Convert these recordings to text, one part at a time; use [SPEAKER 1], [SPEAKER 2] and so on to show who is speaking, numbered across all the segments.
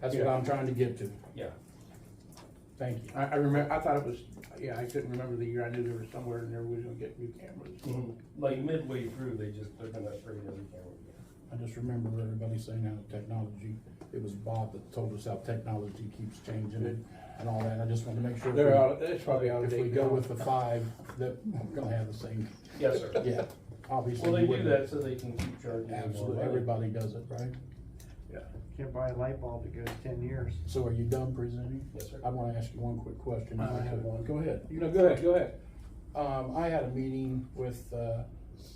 [SPEAKER 1] That's what I'm trying to get to.
[SPEAKER 2] Yeah.
[SPEAKER 1] Thank you.
[SPEAKER 3] I, I remember, I thought it was, yeah, I couldn't remember the year, I knew there was somewhere in there we was gonna get new
[SPEAKER 2] Mm-hmm.
[SPEAKER 3] cameras.
[SPEAKER 2] Like midway through, they just, they're gonna upgrade every camera.
[SPEAKER 1] I just remember everybody saying how technology, it was Bob that told us how technology keeps changing it and all that. I just wanted to make sure.
[SPEAKER 3] They're
[SPEAKER 1] if we-
[SPEAKER 3] out, it's probably out of
[SPEAKER 1] If we
[SPEAKER 3] date
[SPEAKER 1] go
[SPEAKER 3] now.
[SPEAKER 1] with the five, that we're gonna have the same,
[SPEAKER 2] Yes, sir.
[SPEAKER 1] yeah, obviously.
[SPEAKER 2] Well, they
[SPEAKER 1] you
[SPEAKER 2] do
[SPEAKER 1] wouldn't-
[SPEAKER 2] that so they can keep charging. you more
[SPEAKER 1] Absolutely,
[SPEAKER 2] money.
[SPEAKER 1] everybody does it, right?
[SPEAKER 4] Can't buy a light bulb that goes ten years.
[SPEAKER 1] So are you done presenting?
[SPEAKER 2] Yes, sir.
[SPEAKER 1] I wanna ask you one quick question.
[SPEAKER 3] I have
[SPEAKER 1] one. Go ahead.
[SPEAKER 3] You know, go ahead, go ahead.
[SPEAKER 1] Um, I had a meeting with uh,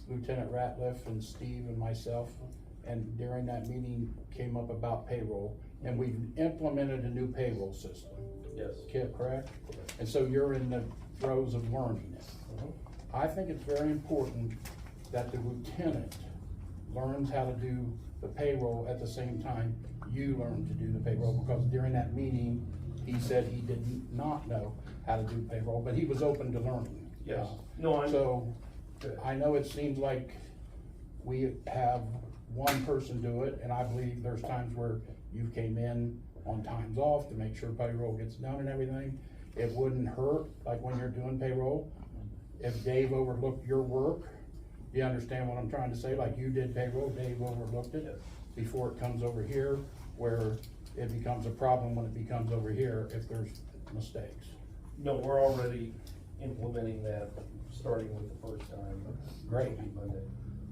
[SPEAKER 1] Lieutenant Ratliff and Steve and myself, and during that meeting came up about payroll, and we implemented a new payroll system,
[SPEAKER 2] Yes.
[SPEAKER 1] Kip, correct? And so you're in the throes of learning it.
[SPEAKER 2] Mhm.
[SPEAKER 1] I think it's very important that the lieutenant learns how to do the payroll at the same time you learn to do the payroll, because during that meeting, he said he did not know how to do payroll, but he was open to learning.
[SPEAKER 2] Yes. No, I'm-
[SPEAKER 1] So,
[SPEAKER 2] Good.
[SPEAKER 1] I know it seems like we have one person do it, and I believe there's times where you came in on times off to make sure payroll gets done and everything. It wouldn't hurt, like when you're doing payroll, if Dave overlooked your work, you understand what I'm trying to say, like you did payroll, Dave overlooked
[SPEAKER 2] Yes.
[SPEAKER 1] it before it comes over here, where it becomes a problem when it becomes over here if there's mistakes.
[SPEAKER 2] No, we're already implementing that, starting with the first time.
[SPEAKER 1] Great.
[SPEAKER 2] Monday.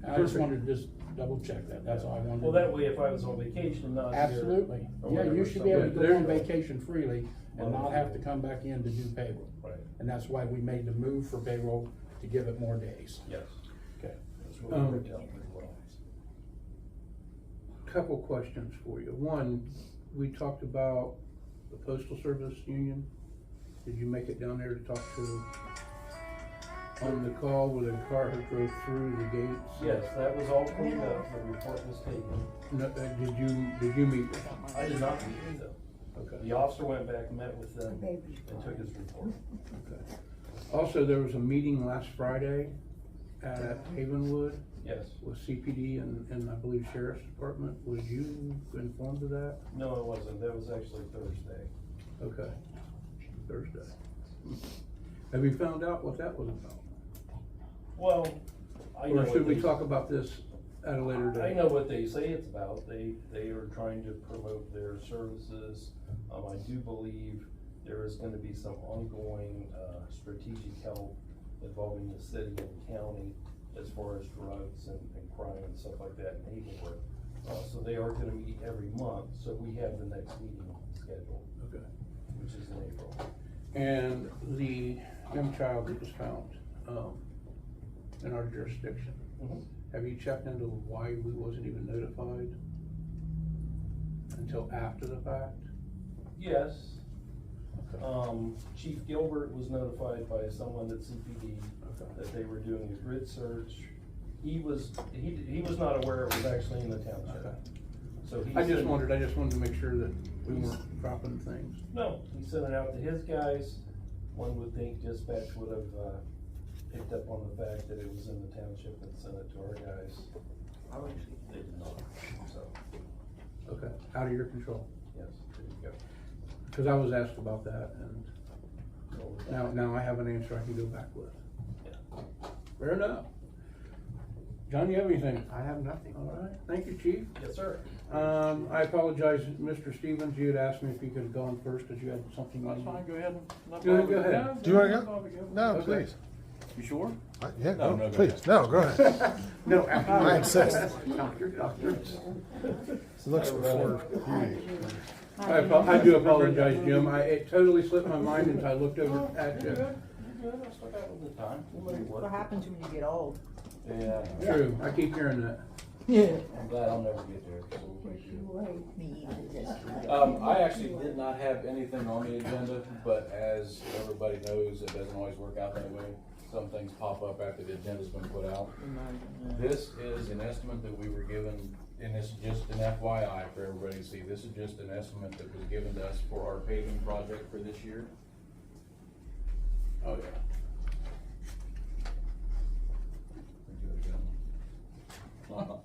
[SPEAKER 1] And I just wanted to just double check that, that's all I wanted.
[SPEAKER 2] Well,
[SPEAKER 1] to-
[SPEAKER 2] that way, if I was on vacation and not here.
[SPEAKER 1] Absolutely,
[SPEAKER 2] or
[SPEAKER 1] yeah, you
[SPEAKER 2] whatever,
[SPEAKER 1] should be able to
[SPEAKER 2] somebody-
[SPEAKER 1] go on vacation freely and not have to come back in to do payroll.
[SPEAKER 2] Right,
[SPEAKER 1] And that's why we made the move for payroll to give it more days.
[SPEAKER 2] yes. Okay. That's what
[SPEAKER 3] Um,
[SPEAKER 2] we worked out pretty well.
[SPEAKER 3] Couple questions for you. One, we talked about the postal service union. Did you make it down there to talk to on the call where the car had drove through the gates?
[SPEAKER 2] Yes, that was all cleaned up, the report was taken.
[SPEAKER 3] No, uh, did you, did you meet with them?
[SPEAKER 2] I did not meet with them.
[SPEAKER 3] Okay.
[SPEAKER 2] The officer went back and met with them and took his report.
[SPEAKER 3] Okay. Also, there was a meeting last Friday at Havenwood
[SPEAKER 2] Yes,
[SPEAKER 3] with CPD and, and I believe Sheriff's Department. Was you informed of that?
[SPEAKER 2] no, it wasn't, that was actually Thursday.
[SPEAKER 3] Okay, Thursday. Hmm. Have you found out what that was about?
[SPEAKER 2] Well, I know.
[SPEAKER 3] Or should
[SPEAKER 2] what
[SPEAKER 3] we
[SPEAKER 2] they-
[SPEAKER 3] talk about this at a later date?
[SPEAKER 2] I know what they say it's about, they, they are trying to promote their services. Um, I do believe there is gonna be some ongoing, uh, strategic help involving the city and county as far as drugs and, and crime and stuff like that in Hazelwood. Uh, so they are gonna meet every month, so we have the next meeting scheduled,
[SPEAKER 3] Okay.
[SPEAKER 2] which is in April.
[SPEAKER 3] And the young child that was found, um, in our jurisdiction,
[SPEAKER 2] Mhm.
[SPEAKER 3] have you checked into why we wasn't even notified? Until after the fact?
[SPEAKER 2] Yes. Um, Chief Gilbert was notified by someone at CPD
[SPEAKER 3] Okay.
[SPEAKER 2] that they were doing a grid search. He was, he, he was not aware it was actually in the
[SPEAKER 3] Okay.
[SPEAKER 2] township. So he.
[SPEAKER 3] I just
[SPEAKER 2] sent-
[SPEAKER 3] wondered, I just wanted to make sure that we weren't dropping things.
[SPEAKER 2] No, he sent it out to his guys. One would think dispatch would have, uh, picked up on the fact that it was in the township and sent it to our guys. They did not, so,
[SPEAKER 3] Okay, out of your control,
[SPEAKER 2] yes, there you
[SPEAKER 3] cause I was asked about that and
[SPEAKER 2] go. So with that-
[SPEAKER 3] Now, now I have an answer I can go back with.
[SPEAKER 2] Yeah.
[SPEAKER 3] Fair enough. John, you have anything?
[SPEAKER 4] I have nothing.
[SPEAKER 3] All right, thank you, chief.
[SPEAKER 2] Yes, sir.
[SPEAKER 3] Um, I apologize, Mr. Stevens, you had asked me if you could have gone first, because you had something on.
[SPEAKER 1] go ahead.
[SPEAKER 3] Go ahead, go ahead.
[SPEAKER 5] Do you wanna go? No,
[SPEAKER 3] Okay.
[SPEAKER 5] please.
[SPEAKER 1] You sure?
[SPEAKER 5] I- Yeah,
[SPEAKER 6] No, no,
[SPEAKER 5] go,
[SPEAKER 6] go
[SPEAKER 5] please. No, go ahead.
[SPEAKER 3] No, after.
[SPEAKER 5] I insist.
[SPEAKER 3] Doctor, doctor.
[SPEAKER 5] It looks before you.
[SPEAKER 3] I, apo- I do apologize, Jim, I, it totally slipped my mind until I looked over at you.
[SPEAKER 2] You're good, I still got a little bit of time. Anybody
[SPEAKER 7] What
[SPEAKER 2] work?
[SPEAKER 7] happens when you get old?
[SPEAKER 6] Yeah,
[SPEAKER 3] True, I keep hearing that.
[SPEAKER 7] Yeah.
[SPEAKER 6] I'm glad I'll never get there. so we'll make it.
[SPEAKER 7] Me
[SPEAKER 6] Um, I actually did not have anything on the agenda, but as everybody knows, it doesn't always work out that way. Some things pop up after the agenda's been put out. This is an estimate that we were given, and it's just an FYI for everybody to see. This is just an estimate that was given to us for our paving project for this year. Oh, yeah. Let me do it again. Uh-huh.